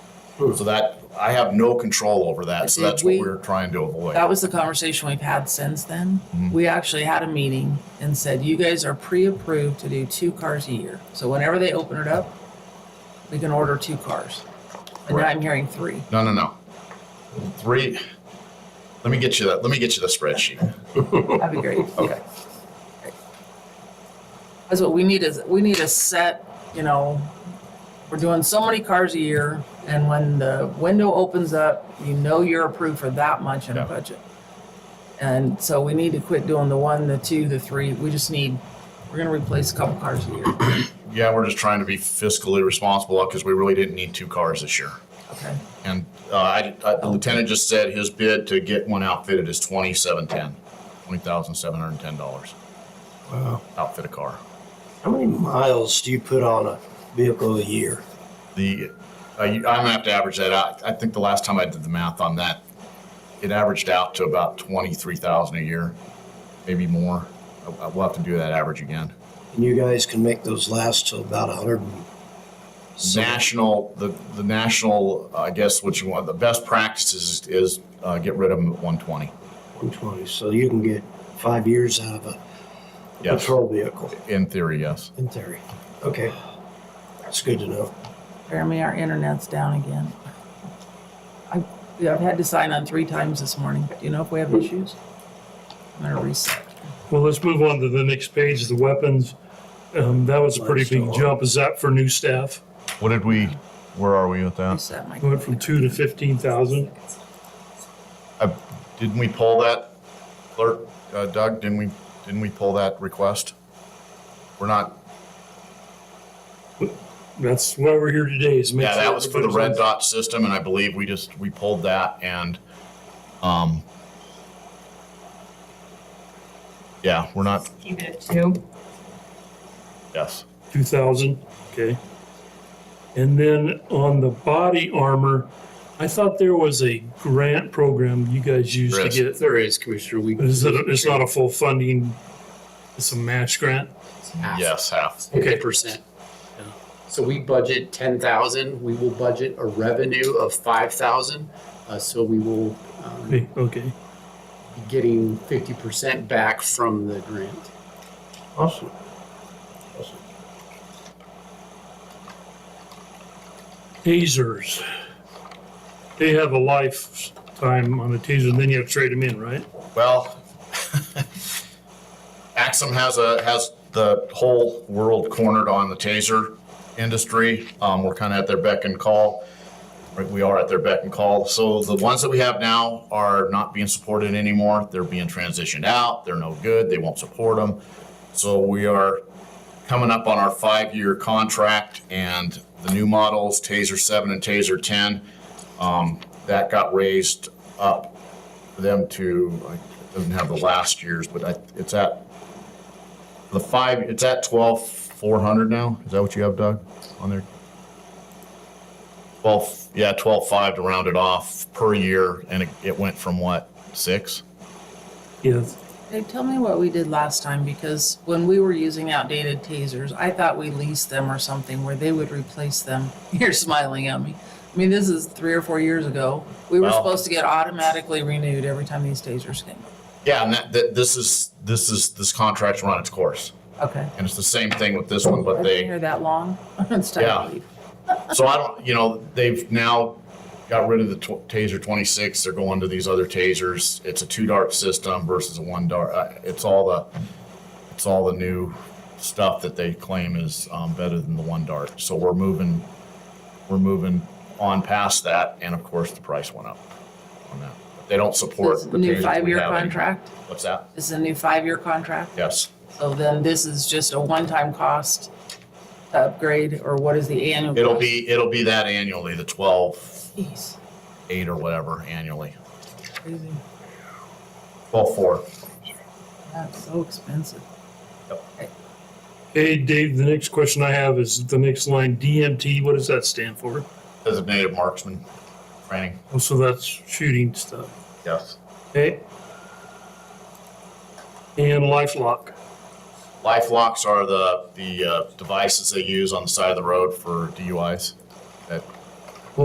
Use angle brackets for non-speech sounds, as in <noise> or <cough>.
So that, I have no control over that, so Did that's what we- we're trying to avoid. That was the conversation we've had since then. We actually had a meeting and said, you guys are pre-approved to do two cars a year. So whenever they open it up, we can order two cars. And now Correct. I'm hearing three. No, no, no. Three, let me get you that, let me get you the spreadsheet. That'd be great. Okay. That's what we need is, we need a set, you know, we're doing so many cars a year. And when the window opens up, you know you're approved for that much in Yeah. a budget. And so we need to quit doing the one, the two, the three. We just need, we're gonna replace a couple cars a year. Yeah, we're just trying to be fiscally responsible because we really didn't need two cars this year. Okay. And uh, I, I- the lieutenant just said his bid to get one outfitted is twenty-seven ten, twenty thousand seven hundred and ten dollars. Wow. Outfit a car. Uh, How many miles do you put on a vehicle a year? The, uh, you- I'm gonna have to average that out. I think the last time I did the math on that, it averaged out to about twenty-three thousand a year, maybe more. I, I will have to do that average again. And you guys can make those last to about a hundred and National, the, the national, I guess what you want, the best practices is, uh, get rid of them at one twenty. one twenty. So you can get five years out of a Yes, patrol vehicle in theory, yes. in theory. Okay. That's good to know. Jeremy, our internet's down again. I, yeah, I've had to sign on three times this morning. Do you know if we have issues? I'm gonna reset. Well, let's move on to the next page, the weapons. Um, that was a pretty big jump. Is that for new staff? What did we, where are we with that? Reset my. Went from two to fifteen thousand. I- Didn't we pull that, clerk, uh, Doug, didn't we, didn't we pull that request? We're not, That's why we're here today is make yeah, sure. that was for the red everybody's on- dot system, and I believe we just, we pulled that and, um, yeah, we're not, Keep it at two. yes. Two thousand, okay. And then on the body armor, I thought there was a grant program you guys used There to is. get. There is, Commissioner. We. Is it, it's not a full funding, it's a match grant? Yes, half. Okay, percent. So we budget ten thousand. We will budget a revenue of five thousand. Uh, so we will um, be Okay, okay. getting fifty percent back from the grant. Awesome. Tasers. They have a lifetime on a taser, and then you have to trade them in, right? Well, <laughs> Axum has a, has the whole world cornered on the taser industry. Um, we're kind of at their beck and call. Right, We are at their beck and call. So the ones that we have now are not being supported anymore. They're being transitioned out. They're no good. They won't support them. So we are coming up on our five-year contract and the new models, Taser 7 and Taser 10, um, that got raised uh, up for them to, I it doesn't have the last years, but I, it's at the five, it's at twelve four hundred now. Is that what you have, Doug, on there? Twelve, yeah, twelve five to round it off per year, and it, it went from what, six? Yes. Hey, tell me what we did last time, because when we were using outdated tasers, I thought we leased them or something where they would replace them. <laughs> You're smiling at me. I mean, this is three or four years ago. We were Well- supposed to get automatically renewed every time these tasers came. Yeah, and that, that, this is, this is, this contract's run its course, Okay. and it's the same thing with this one, I've but been they. here that long. <laughs> It's Yeah. time to leave. So I don't, you know, they've now got rid of the tw- Taser 26. They're going to these other Tasers. It's a two dart system versus a one dart. Uh, It's all the, it's all the new stuff that they claim is um, better than the one dart. So we're moving, we're moving on past that, and of course the price went up on that. But they don't support This the tasers new we five-year have anymore. contract. What's that? This is a new five-year contract. Yes. So then this is just a one-time cost to upgrade, or what is the annual? It'll cost? be it'll be that annually, the 12, Jeez, 8 or whatever annually. crazy. 12, 4. That's so expensive. Hey, Dave, the next question I have is the next line, DMT, what does that stand for? Designated marksman training. Oh, so that's shooting stuff, Yes. okay? And LifeLock, Life locks are the, the uh, devices they use on the side of the road for DUIs that